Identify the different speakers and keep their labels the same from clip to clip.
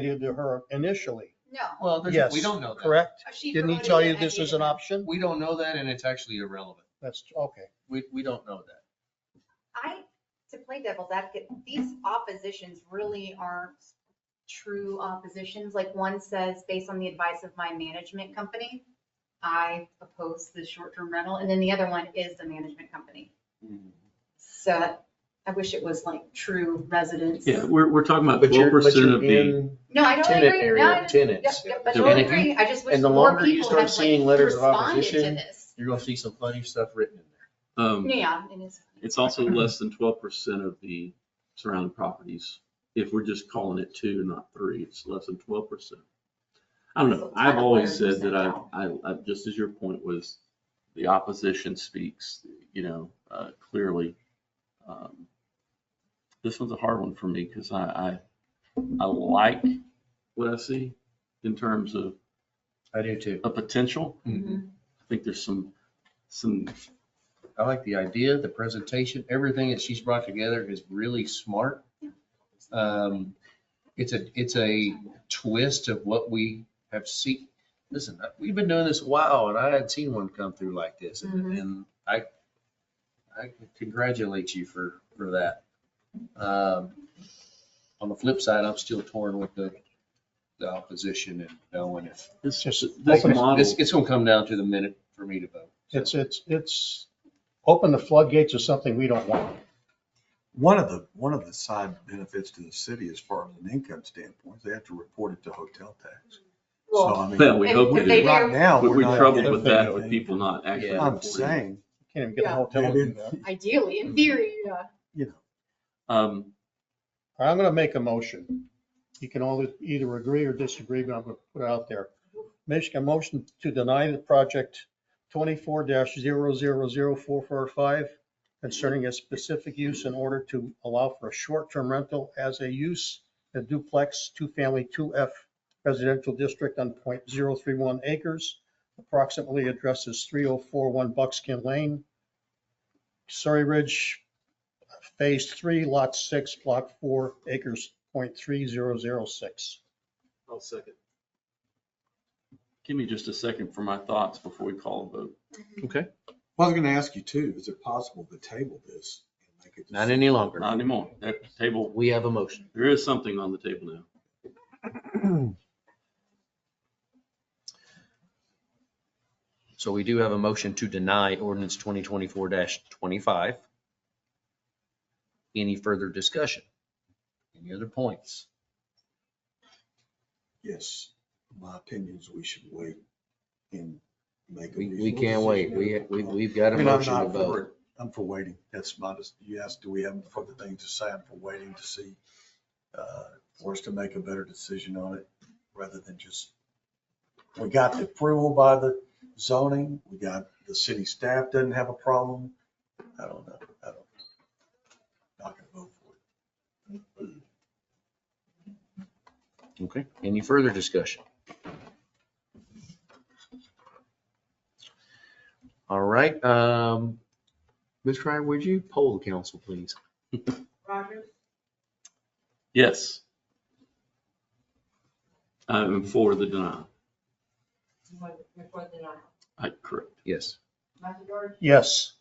Speaker 1: provided to her initially,
Speaker 2: No, Uh,
Speaker 3: Well, there's,
Speaker 1: Yes,
Speaker 3: we don't know that.
Speaker 1: correct?
Speaker 2: she
Speaker 1: Didn't he
Speaker 2: promoted
Speaker 1: tell
Speaker 2: it
Speaker 1: you
Speaker 2: at
Speaker 1: this
Speaker 2: the
Speaker 1: is an
Speaker 2: event.
Speaker 1: option?
Speaker 3: We don't know that and it's actually irrelevant.
Speaker 1: That's, okay.
Speaker 3: We, we don't know that.
Speaker 2: I, to play devil's advocate, these oppositions really aren't true oppositions. Like one says, based on the advice of my management company, I oppose the short-term rental, and then the other one is the management company. So I wish it was like true residents.
Speaker 4: Yeah, we're, we're talking about
Speaker 5: But you're,
Speaker 4: twelve
Speaker 5: but
Speaker 4: percent of
Speaker 5: you're
Speaker 4: the,
Speaker 5: in
Speaker 2: No, I totally
Speaker 5: tenant
Speaker 2: agree. No, I
Speaker 5: area,
Speaker 2: just- yep,
Speaker 5: tenants.
Speaker 2: yep, I
Speaker 4: They're
Speaker 2: totally
Speaker 5: in it.
Speaker 2: agree. I just wish
Speaker 5: And the
Speaker 2: more
Speaker 5: longer you
Speaker 2: people
Speaker 5: start
Speaker 2: had
Speaker 5: seeing
Speaker 2: like
Speaker 5: letters of
Speaker 2: responded to
Speaker 5: opposition,
Speaker 2: this.
Speaker 5: You're gonna see some funny stuff written in there.
Speaker 4: um,
Speaker 2: Yeah, it is.
Speaker 4: it's also less than twelve percent of the surrounding properties. If we're just calling it two, not three, it's less than twelve percent. I don't know. I've always said that I, I, I, just as your point was, the opposition speaks, you know, uh, clearly. Um, This one's a hard one for me because I, I, I like what I see in terms of
Speaker 5: I do too.
Speaker 4: a potential.
Speaker 2: Mhm.
Speaker 4: I think there's some, some
Speaker 5: I like the idea, the presentation, everything that she's brought together is really smart. Um, it's a, it's a twist of what we have seen. Listen, we've been doing this a while and I had seen one come through like this and,
Speaker 2: Mhm.
Speaker 5: and I, I congratulate you for, for that. Um, on the flip side, I'm still torn with the, the opposition and knowing if,
Speaker 4: It's
Speaker 1: just-
Speaker 4: just, this
Speaker 1: Okay.
Speaker 4: model,
Speaker 5: it's, it's gonna come down to the minute for me to vote.
Speaker 1: It's, it's, it's, open the floodgates is something we don't want.
Speaker 6: One of the, one of the side benefits to the city as far as an income standpoint, is they have to report it to hotel tax. So
Speaker 2: Well,
Speaker 6: I mean,
Speaker 4: well, we
Speaker 2: If-
Speaker 4: hope
Speaker 2: if
Speaker 4: we
Speaker 2: they
Speaker 4: do.
Speaker 2: do-
Speaker 6: right now,
Speaker 4: But
Speaker 6: we're
Speaker 4: we're
Speaker 6: not.
Speaker 4: troubled with that, with
Speaker 6: anything.
Speaker 4: people not actually.
Speaker 5: Yeah.
Speaker 6: I'm
Speaker 4: reporting.
Speaker 6: saying,
Speaker 1: Can't even get a
Speaker 2: Yeah.
Speaker 1: hotel
Speaker 6: they
Speaker 1: to do that.
Speaker 6: didn't-
Speaker 2: ideally, in theory, yeah.
Speaker 6: you know,
Speaker 4: Um,
Speaker 1: I'm going to make a motion. You can all either agree or disagree, but I'm going to put it out there. Make a motion to deny the project twenty-four 445 concerning a specific use in order to allow for a short-term rental as a use in duplex, two-family, two F residential district on 0.031 acres. Approximately addresses three oh four one Buckskin Lane, Surrey Ridge, Phase three, lot six, block four, acres, point three zero zero six.
Speaker 3: I'll second.
Speaker 4: give me just a second for my thoughts before we call a vote.
Speaker 6: well, I was gonna ask you too, is it possible to table this? and make a
Speaker 5: Not any longer.
Speaker 4: Not anymore. That table,
Speaker 5: We have a motion.
Speaker 4: there is something on the table now.
Speaker 5: So we do have a motion to deny ordinance twenty twenty-four twenty-five. Any further discussion? Any other points?
Speaker 6: Yes, my opinion is we should wait and make. a
Speaker 5: We, we
Speaker 6: reasonable
Speaker 5: can't wait. We,
Speaker 6: decision.
Speaker 5: we, we've got
Speaker 6: I
Speaker 5: a
Speaker 6: mean, I'm
Speaker 5: motion to
Speaker 6: not for
Speaker 5: vote.
Speaker 6: it. I'm for waiting. That's my, dis- you asked, do we have other things to say? I'm for waiting to see, uh, for us to make a better decision on it rather than just, we got the approval by the zoning, we got, the city staff doesn't have a problem. I don't know. I don't, not gonna vote for it.
Speaker 5: Okay. Any further discussion? All right, um, Ms. Ryan, would you poll the council, please?
Speaker 7: Rogers,
Speaker 4: Yes. I'm for the denial.
Speaker 7: before the nine.
Speaker 4: I, correct.
Speaker 5: Yes,
Speaker 7: Matthew George,
Speaker 1: Yes,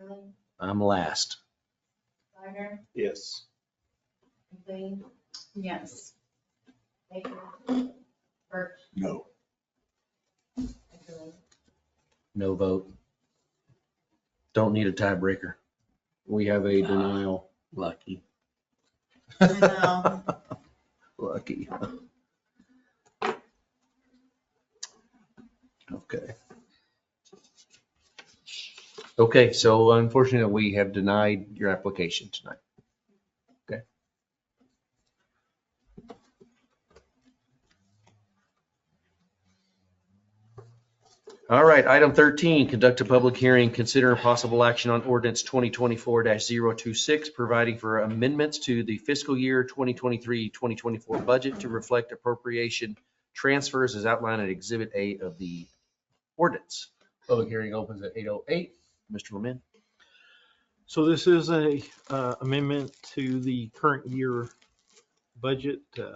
Speaker 7: Beckerly,
Speaker 5: I'm last.
Speaker 7: Steiner,
Speaker 3: Yes.
Speaker 7: McLean,
Speaker 2: Yes.
Speaker 7: Baker, Birch,
Speaker 6: No.
Speaker 7: Beckerly.
Speaker 5: No vote. Don't need a tiebreaker. We have a denial.
Speaker 4: Lucky.
Speaker 7: know.
Speaker 5: Lucky. Okay. Okay, so unfortunately, we have denied your application tonight. Okay. All right, item 13, conduct a public hearing, consider possible action on ordinance 2024-026, providing for amendments to the fiscal year 2023-2024 budget to reflect appropriation transfers as outlined in Exhibit A of the ordinance. Public hearing opens at 8:08. Mr. Lemon.
Speaker 8: So this is a uh, amendment to the current year budget, uh,